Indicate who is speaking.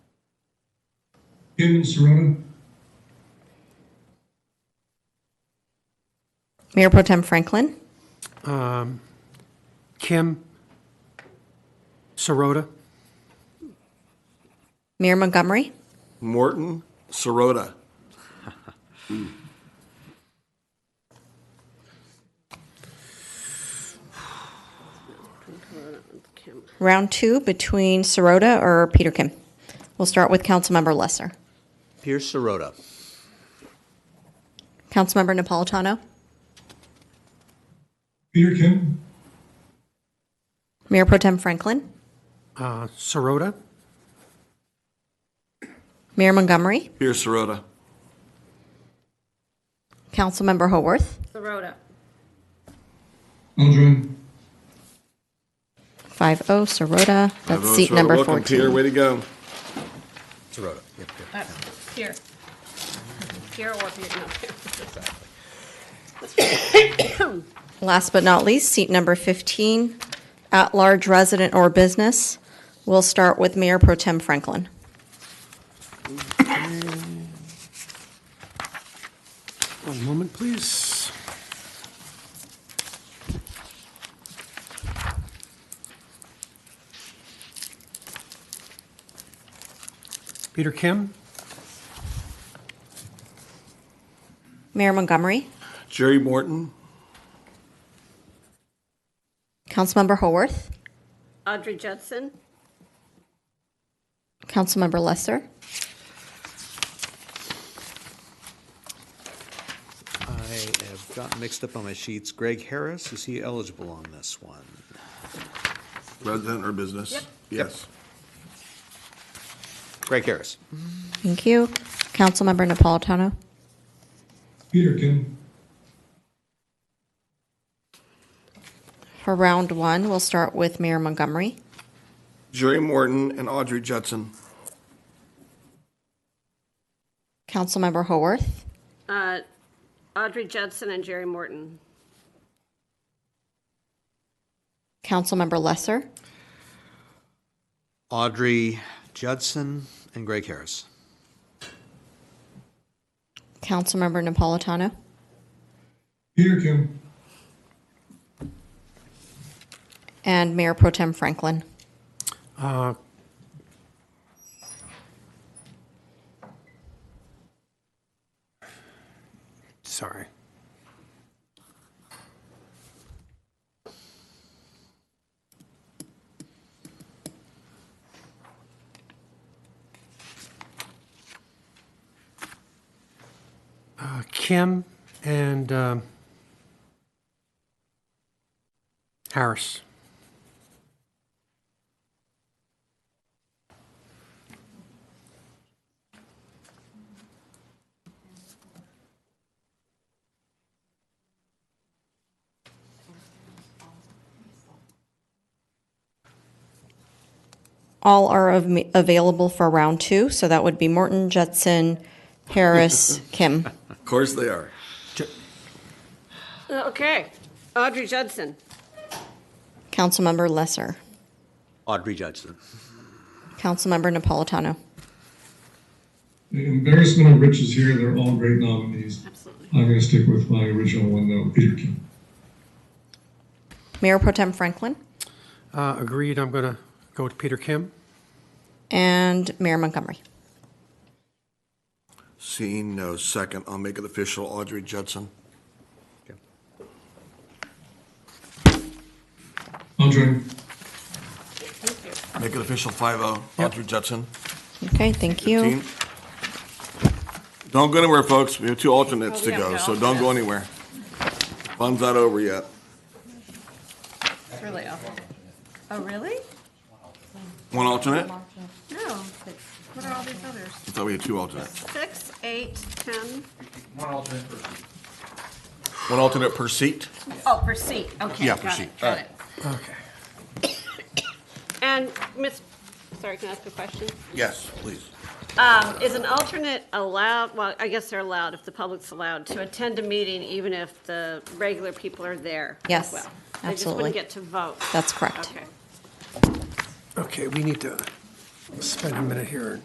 Speaker 1: Newman Sirota.
Speaker 2: Mayor Pro Tem Franklin,
Speaker 3: Kim Sirota,
Speaker 2: Mayor Montgomery,
Speaker 4: Morton Sirota.
Speaker 2: round two between Sirota or Peter Kim. We'll start with Councilmember Lesser.
Speaker 4: Pierce Sirota.
Speaker 2: Councilmember Napolitano,
Speaker 1: Peter Kim.
Speaker 2: Mayor Pro Tem Franklin,
Speaker 3: uh, Sirota,
Speaker 2: Mayor Montgomery,
Speaker 4: Pierce Sirota.
Speaker 2: Councilmember Haworth,
Speaker 5: Sirota.
Speaker 1: Eldred.
Speaker 2: 5-0 oh, Sirota. That's seat number
Speaker 4: oh, Welcome, Peter.
Speaker 2: 14.
Speaker 4: Way to go.
Speaker 6: Sirota, yep, yep.
Speaker 5: Here. Here or here, no, here.
Speaker 2: Last but not least, seat number 15, at-large resident or business. We'll start with Mayor Pro Tem Franklin.
Speaker 3: One moment, please. Peter Kim,
Speaker 2: Mayor Montgomery,
Speaker 4: Jerry Morton.
Speaker 2: Councilmember Haworth,
Speaker 5: Audrey Judson.
Speaker 2: Councilmember Lesser,
Speaker 6: I have gotten mixed up on my sheets. Greg Harris, is he eligible on this one?
Speaker 4: Resident or business? Yes.
Speaker 6: Greg Harris.
Speaker 2: thank you. Councilmember Napolitano,
Speaker 1: Peter Kim.
Speaker 2: For round one, we'll start with Mayor Montgomery,
Speaker 4: Jerry Morton and Audrey Judson.
Speaker 2: Councilmember Haworth,
Speaker 5: Uh, Audrey Judson and Jerry Morton.
Speaker 2: Councilmember Lesser,
Speaker 6: Audrey Judson and Greg Harris.
Speaker 2: Councilmember Napolitano,
Speaker 1: Peter Kim.
Speaker 2: and Mayor Pro Tem Franklin.
Speaker 3: uh, sorry, uh, Kim and um, Harris.
Speaker 2: All are av- available for round two, so that would be Morton, Judson, Harris, Kim.
Speaker 4: Of course they are.
Speaker 5: Okay. Audrey Judson.
Speaker 2: Councilmember Lesser,
Speaker 6: Audrey Judson.
Speaker 2: Councilmember Napolitano.
Speaker 1: The embarrassment of riches here. They're all great nominees. I'm going to stick with my original one, though, Peter Kim.
Speaker 2: Mayor Pro Tem Franklin
Speaker 3: Uh, Agreed, I'm going to go with Peter Kim.
Speaker 2: and Mayor Montgomery.
Speaker 4: Seeing no second, I'll make it official. Audrey Judson.
Speaker 1: Eldred.
Speaker 4: Make it official 5-0. Audrey Judson.
Speaker 2: Okay, thank you.
Speaker 4: Team. Don't go anywhere, folks. We have two alternates
Speaker 5: Oh,
Speaker 4: to
Speaker 5: we have
Speaker 4: go,
Speaker 5: no
Speaker 4: so don't go anywhere. Fun's not over yet.
Speaker 5: It's really awful. Oh, really?
Speaker 4: One alternate? I
Speaker 5: No. What are all these others?
Speaker 4: thought we had two alternates.
Speaker 5: Six, eight, ten.
Speaker 4: One alternate per seat?
Speaker 5: Oh, per seat. Okay.
Speaker 4: Yeah,
Speaker 5: got
Speaker 4: per
Speaker 5: it,
Speaker 4: seat.
Speaker 5: Got
Speaker 4: All
Speaker 5: it.
Speaker 3: Okay.
Speaker 5: And Miss, sorry, can I ask a question?
Speaker 4: Yes, please.
Speaker 5: Um, is an alternate allowed, well, I guess they're allowed if the public's allowed to attend a meeting even if the regular people are there as
Speaker 2: Yes,
Speaker 5: well? They just
Speaker 2: absolutely.
Speaker 5: wouldn't get to vote.
Speaker 2: That's correct.
Speaker 5: Okay.
Speaker 3: Okay, we need to spend a minute here